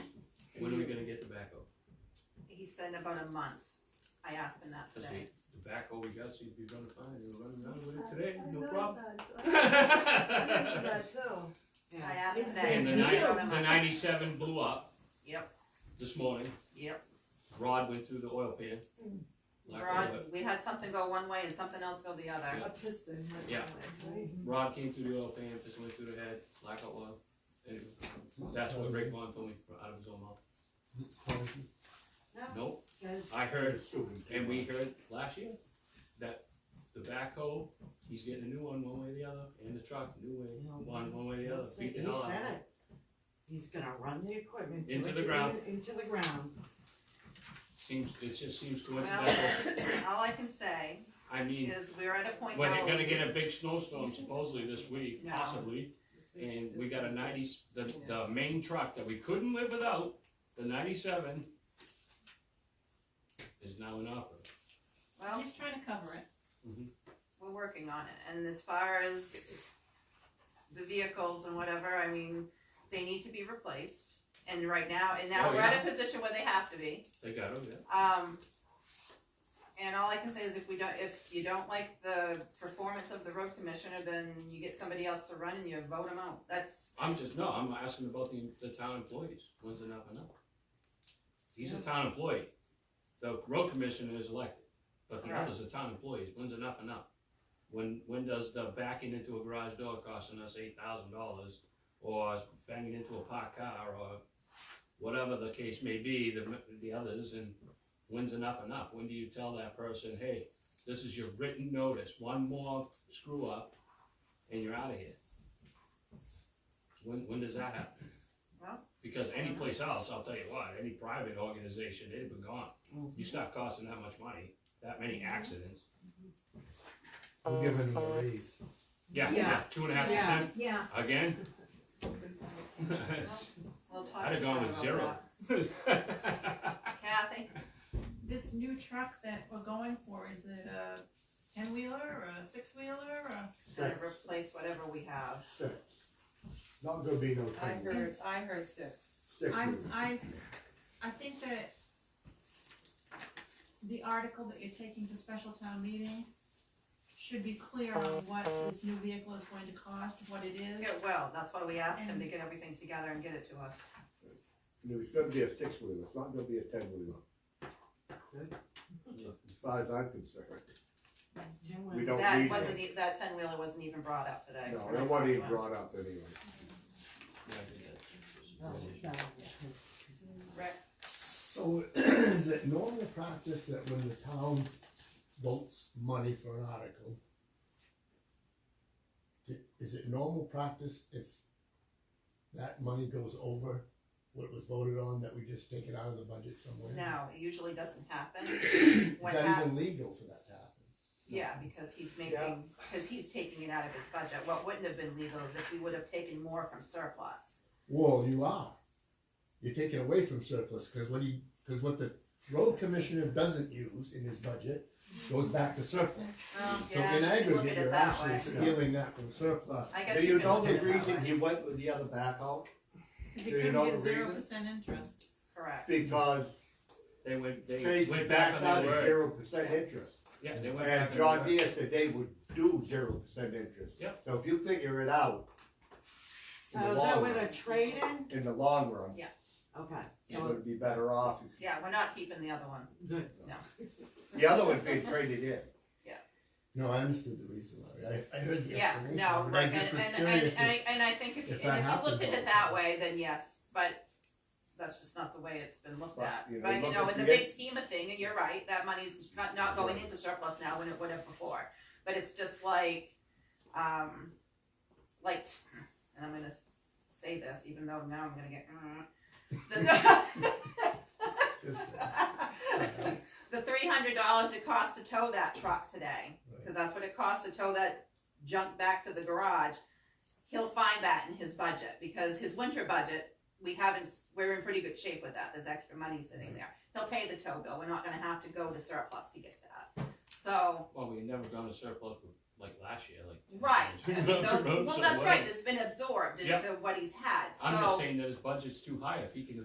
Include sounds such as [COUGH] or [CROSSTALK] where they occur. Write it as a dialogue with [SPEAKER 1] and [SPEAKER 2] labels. [SPEAKER 1] he said about a month, I asked him that
[SPEAKER 2] Does
[SPEAKER 1] today.
[SPEAKER 2] The backhoe we got seems to be running fine, they were running around with it
[SPEAKER 3] I-
[SPEAKER 2] today,
[SPEAKER 3] I
[SPEAKER 2] no
[SPEAKER 3] noticed
[SPEAKER 2] problem.
[SPEAKER 3] that. I
[SPEAKER 4] [LAUGHS]
[SPEAKER 3] mentioned that too.
[SPEAKER 1] I asked him
[SPEAKER 3] It's
[SPEAKER 1] today.
[SPEAKER 2] And the
[SPEAKER 3] been
[SPEAKER 1] he said
[SPEAKER 3] years.
[SPEAKER 1] about a
[SPEAKER 2] nine, the
[SPEAKER 1] month.
[SPEAKER 2] ninety-seven blew up
[SPEAKER 1] Yep,
[SPEAKER 2] this morning,
[SPEAKER 1] yep,
[SPEAKER 2] rod went through the oil pan.
[SPEAKER 3] Mm.
[SPEAKER 2] Like,
[SPEAKER 1] rod,
[SPEAKER 2] uh,
[SPEAKER 1] we had something go one way and something else go the other,
[SPEAKER 3] A piston. went
[SPEAKER 2] Yeah.
[SPEAKER 3] that way,
[SPEAKER 2] Rod came through the oil pan, just went through the head, lack of oil. And That's what Rick Vaughn told me from out of his own mouth.
[SPEAKER 3] right? No,
[SPEAKER 2] Nope,
[SPEAKER 3] guys,
[SPEAKER 2] I heard, and we heard last year, that the backhoe, he's getting a new one one way or the other, and the truck, new way, one, one way or the other,
[SPEAKER 4] He
[SPEAKER 2] beat the hell out of
[SPEAKER 4] said
[SPEAKER 2] it.
[SPEAKER 4] it. He's gonna run the equipment. to
[SPEAKER 2] Into
[SPEAKER 4] it,
[SPEAKER 2] the ground.
[SPEAKER 4] in- Into the ground.
[SPEAKER 2] Seems, it just seems
[SPEAKER 1] well,
[SPEAKER 2] coincidental.
[SPEAKER 1] [LAUGHS] all I can say
[SPEAKER 2] I mean,
[SPEAKER 1] is we're at a point now.
[SPEAKER 2] when you're gonna get a big snowstorm supposedly this week,
[SPEAKER 1] No.
[SPEAKER 2] possibly, and we got a ninety, the, the
[SPEAKER 4] Yes.
[SPEAKER 2] main truck that we couldn't live without, the ninety-seven, is now in opera.
[SPEAKER 1] Well,
[SPEAKER 5] He's trying to cover it.
[SPEAKER 2] Mm-hmm.
[SPEAKER 1] we're working on it, and as far as the vehicles and whatever, I mean, they need to be replaced. And right now, and now
[SPEAKER 2] Oh,
[SPEAKER 1] we're at a position where they have to be.
[SPEAKER 2] They got them, yeah.
[SPEAKER 1] Um, and all I can say is if we don't, if you don't like the performance of the road commissioner, then you get somebody else to run and you vote him out. That's,
[SPEAKER 2] I'm just, no, I'm asking about the, the town employees, when's it not enough? He's a
[SPEAKER 4] Yeah.
[SPEAKER 2] town employee, the road commissioner is elected, but the
[SPEAKER 1] Right.
[SPEAKER 2] others are town employees, when's enough enough? When, when does the backing into a garage door costing us eight thousand dollars, or banging into a parked car, or whatever the case may be, the, the others, and when's enough enough? When do you tell that person, hey, this is your written notice, one more screw up, and you're out of here? When, when does that happen?
[SPEAKER 1] Well-
[SPEAKER 2] Because any place else, I'll tell you what, any private organization, they'd have been gone.
[SPEAKER 1] Mm-hmm.
[SPEAKER 2] You start costing that much money, that many accidents.
[SPEAKER 6] We're giving him a raise.
[SPEAKER 2] Yeah,
[SPEAKER 4] Yeah.
[SPEAKER 2] yeah, two and a half percent,
[SPEAKER 3] yeah.
[SPEAKER 1] [LAUGHS]
[SPEAKER 2] again?
[SPEAKER 1] we'll talk.
[SPEAKER 2] I'd have gone with
[SPEAKER 1] about
[SPEAKER 2] zero. [LAUGHS]
[SPEAKER 1] that. Kathy,
[SPEAKER 5] This new truck that we're going for, is it a ten wheeler or a six wheeler or?
[SPEAKER 1] gotta replace whatever we have.
[SPEAKER 6] Six. Not gonna be no
[SPEAKER 7] I
[SPEAKER 6] ten.
[SPEAKER 7] heard, I heard six.
[SPEAKER 6] Six
[SPEAKER 5] I,
[SPEAKER 6] years.
[SPEAKER 5] I, I think that the article that you're taking to special town meeting should be clear on what this new vehicle is going to cost, what it is.
[SPEAKER 1] Yeah, well, that's why we asked him to get everything together and get it to us.
[SPEAKER 6] And It's gonna be a six wheeler, it's not gonna be a ten wheeler. As far as I'm concerned. We don't
[SPEAKER 1] That
[SPEAKER 6] need
[SPEAKER 1] wasn't,
[SPEAKER 6] it.
[SPEAKER 1] e- that ten wheeler wasn't even brought up today.
[SPEAKER 6] No, that wasn't even brought up anyway.
[SPEAKER 4] No, no.
[SPEAKER 1] Rick,
[SPEAKER 8] So [CLEARS THROAT] is it normal practice that when the town votes money for an article, i- is it normal practice if that money goes over what was voted on, that we just take it out of the budget somewhere?
[SPEAKER 1] no, it usually doesn't happen.
[SPEAKER 8] Is
[SPEAKER 1] What
[SPEAKER 8] that
[SPEAKER 1] hap-
[SPEAKER 8] even legal for that to happen?
[SPEAKER 1] Yeah, because he's
[SPEAKER 6] Yeah.
[SPEAKER 1] making, because he's taking it out of his budget. What wouldn't have been legal is if we would have taken more from surplus.
[SPEAKER 8] Well, you are. You're taking away from surplus, cause what he, cause what the road commissioner doesn't use in his budget goes back to surplus. So
[SPEAKER 1] Oh, Yeah,
[SPEAKER 8] in
[SPEAKER 1] you can look at
[SPEAKER 8] aggregate,
[SPEAKER 1] it
[SPEAKER 8] you're
[SPEAKER 1] that
[SPEAKER 8] actually
[SPEAKER 1] way.
[SPEAKER 8] stealing that from surplus.
[SPEAKER 1] I
[SPEAKER 6] Do
[SPEAKER 1] guess
[SPEAKER 6] you
[SPEAKER 1] you can
[SPEAKER 6] know
[SPEAKER 1] look at
[SPEAKER 6] the
[SPEAKER 1] it that
[SPEAKER 6] reason he
[SPEAKER 1] way.
[SPEAKER 6] went with the other backhoe?
[SPEAKER 5] Cause it
[SPEAKER 6] Do you
[SPEAKER 5] could
[SPEAKER 6] know
[SPEAKER 5] be
[SPEAKER 6] the
[SPEAKER 5] a zero
[SPEAKER 6] reason?
[SPEAKER 5] percent interest.
[SPEAKER 1] Correct.
[SPEAKER 6] Because
[SPEAKER 2] They went, they
[SPEAKER 6] Chase
[SPEAKER 2] went back
[SPEAKER 6] backed
[SPEAKER 2] on
[SPEAKER 6] out
[SPEAKER 2] their
[SPEAKER 6] at
[SPEAKER 2] word.
[SPEAKER 6] zero percent interest.
[SPEAKER 2] Yeah, they went
[SPEAKER 6] And
[SPEAKER 2] back on
[SPEAKER 6] John
[SPEAKER 2] their word.
[SPEAKER 6] Deere today would do zero percent interest.
[SPEAKER 2] Yep.
[SPEAKER 6] So if you figure it out. in the
[SPEAKER 4] Oh, is that
[SPEAKER 6] long
[SPEAKER 4] with
[SPEAKER 6] run-
[SPEAKER 4] a trade-in?
[SPEAKER 6] In the long run,
[SPEAKER 4] Okay,
[SPEAKER 6] you're
[SPEAKER 4] so,
[SPEAKER 6] gonna be better off. if-
[SPEAKER 1] Yeah, we're not keeping the other one.
[SPEAKER 4] good.
[SPEAKER 6] The other one's being traded in.
[SPEAKER 8] No, I understood the reason, Larry. I, I heard the
[SPEAKER 1] Yeah,
[SPEAKER 8] explanation.
[SPEAKER 1] no,
[SPEAKER 8] but I
[SPEAKER 1] right, and,
[SPEAKER 8] just was
[SPEAKER 1] and, and,
[SPEAKER 8] curious if-
[SPEAKER 1] I- and I think if, and
[SPEAKER 8] if
[SPEAKER 1] if
[SPEAKER 8] that
[SPEAKER 1] you looked
[SPEAKER 8] happens
[SPEAKER 1] at
[SPEAKER 8] all
[SPEAKER 1] it
[SPEAKER 8] the
[SPEAKER 1] that
[SPEAKER 8] time.
[SPEAKER 1] way, then yes, but that's just not the way it's been looked
[SPEAKER 6] But,
[SPEAKER 1] at.
[SPEAKER 6] you know,
[SPEAKER 1] But, you
[SPEAKER 6] look
[SPEAKER 1] know,
[SPEAKER 6] at
[SPEAKER 1] in the
[SPEAKER 6] the
[SPEAKER 1] big scheme of thing, and you're right, that money's not, not going into surplus now when it would have before. But it's just like, um, like, and I'm gonna s- say this, even though now I'm gonna get, [LAUGHS] mm. The- The three hundred dollars it cost to tow that truck today, cause that's what it costs to tow that junk back to the garage. He'll find that in his budget, because his winter budget, we haven't, s- we're in pretty good shape with that, there's extra money sitting there. He'll pay the tow bill, we're not gonna have to go to surplus to get that, so,
[SPEAKER 2] Well, we had never gone to surplus like last year, like. [LAUGHS]
[SPEAKER 1] right.
[SPEAKER 2] Yeah.
[SPEAKER 1] Those-
[SPEAKER 2] Roads
[SPEAKER 1] Well,
[SPEAKER 2] are
[SPEAKER 1] that's
[SPEAKER 2] wet.
[SPEAKER 1] right, it's been absorbed
[SPEAKER 2] Yep.
[SPEAKER 1] into what he's had, so.
[SPEAKER 2] I'm just saying that his budget's too high, if he can